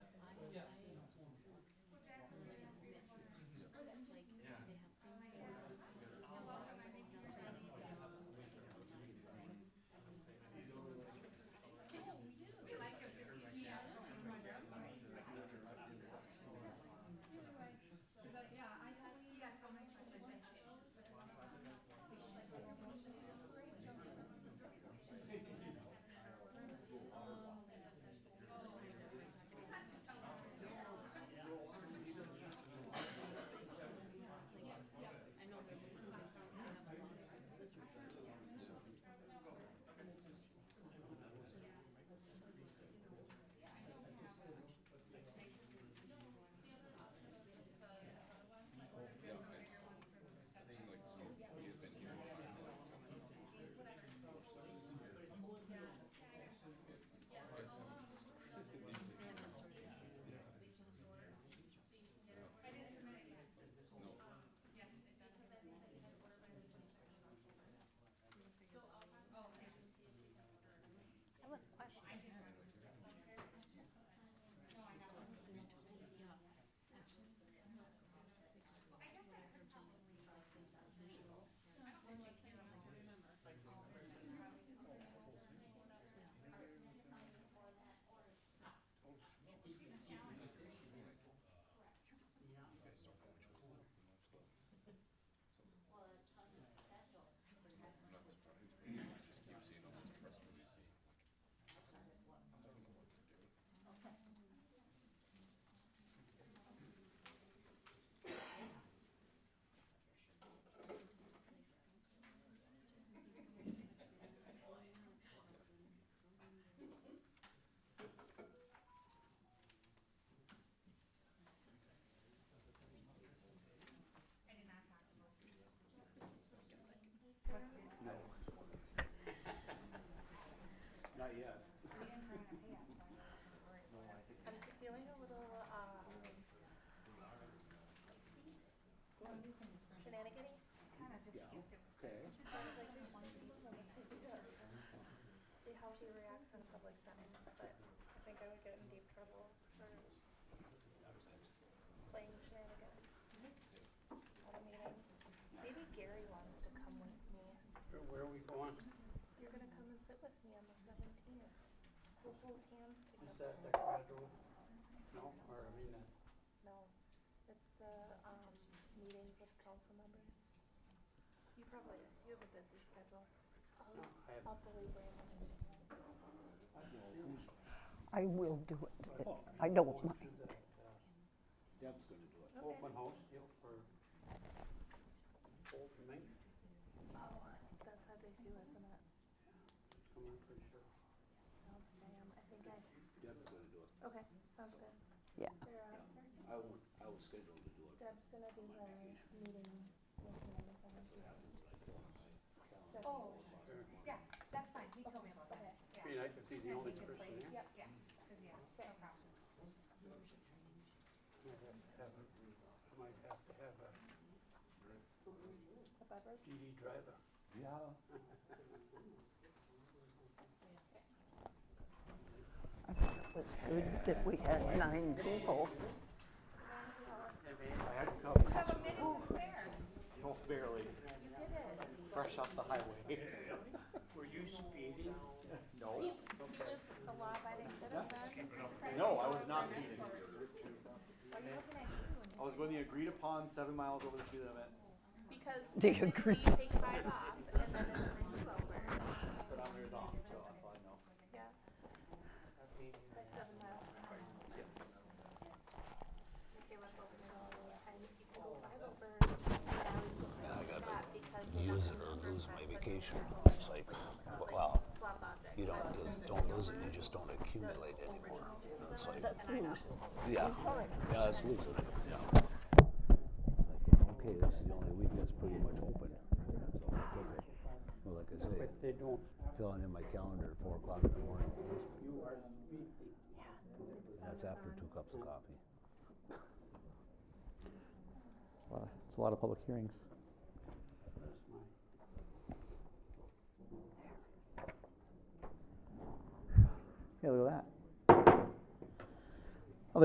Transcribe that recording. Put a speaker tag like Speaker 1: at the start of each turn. Speaker 1: Not yet.
Speaker 2: We didn't bring our pants, so I wasn't worried
Speaker 1: No,
Speaker 2: about
Speaker 1: I
Speaker 2: it.
Speaker 1: think
Speaker 3: I'm feeling a little uh,
Speaker 2: Well, you can just bring it.
Speaker 3: shenanigan
Speaker 2: Kinda just
Speaker 1: Yeah.
Speaker 2: skipped it.
Speaker 1: Okay.
Speaker 3: I was like, "Hmm, let's see if he does. See how he reacts in a public setting, but I think I would get in deep trouble for playing shenanigans. At a meeting. Maybe Gary wants to come with me.
Speaker 4: Where- Where are we going?
Speaker 3: You're gonna come and sit with me on the seventeenth. We'll hold hands
Speaker 4: Is
Speaker 3: together.
Speaker 4: that the federal? No, or I mean, the-
Speaker 3: No, it's the, um, meetings with council members. You probably, you have a busy schedule.
Speaker 4: no, I have,
Speaker 3: I'll believe Brandon.
Speaker 5: I will do it.
Speaker 1: Oh,
Speaker 5: I don't
Speaker 4: going
Speaker 5: mind.
Speaker 4: to the, the
Speaker 1: Deb's gonna do it.
Speaker 3: Okay.
Speaker 4: open house deal for Old Mink,
Speaker 3: Oh, that's how they do, isn't it?
Speaker 4: I'm not pretty sure.
Speaker 3: Oh, damn, I think I,
Speaker 1: Deb's gonna do it.
Speaker 3: okay, sounds good.
Speaker 5: Yeah.
Speaker 3: Sarah,
Speaker 1: I will, I will schedule to do it.
Speaker 3: Deb's gonna be the meeting with me on the seventeenth.
Speaker 2: Oh, yeah, that's fine, he told me about that,
Speaker 4: I mean,
Speaker 2: yeah.
Speaker 4: I could be
Speaker 2: He's
Speaker 4: the
Speaker 2: gonna
Speaker 4: only
Speaker 2: take his
Speaker 4: person
Speaker 2: place, yep,
Speaker 4: there.
Speaker 2: yeah, cause he has, no problem.
Speaker 4: I'd have to have a- I might have to have a
Speaker 3: The beverage?
Speaker 4: DD driver.
Speaker 1: Yeah.
Speaker 5: I thought it was good that we had nine people.
Speaker 4: I had to come,
Speaker 2: You have a minute to spare.
Speaker 4: oh, barely,
Speaker 3: You did it.
Speaker 4: fresh off the highway. Were you speeding? No.
Speaker 3: Just a law-abiding citizen.
Speaker 6: No, I was not speeding.
Speaker 3: Why are you looking at you when
Speaker 6: I
Speaker 3: you?
Speaker 6: was going the agreed upon seven miles over the speed limit,
Speaker 3: Because
Speaker 5: Do you
Speaker 3: typically
Speaker 5: agree?
Speaker 3: you take five off and then it turns you over.
Speaker 6: speedometer's off, so that's all I know.
Speaker 3: Yeah. By seven miles per hour. Okay, what else we know? And if you go five over, but I was just thinking that because. Use or lose my vacation.
Speaker 7: It's like, well, you don't don't lose it, you just don't accumulate anymore. It's like,
Speaker 5: That's news.
Speaker 7: yeah,
Speaker 5: I'm sorry.
Speaker 7: yeah, that's losing it. Yeah. It's like, okay, this is the only week that's pretty much open. So I figure, well, like I say,
Speaker 4: They don't,
Speaker 7: filling in my calendar at four o'clock in the morning.
Speaker 4: you are speeding.
Speaker 7: That's after two cups of coffee.
Speaker 8: It's a lot of, it's a lot of public hearings.
Speaker 4: Where's my?
Speaker 8: Hey, look at that.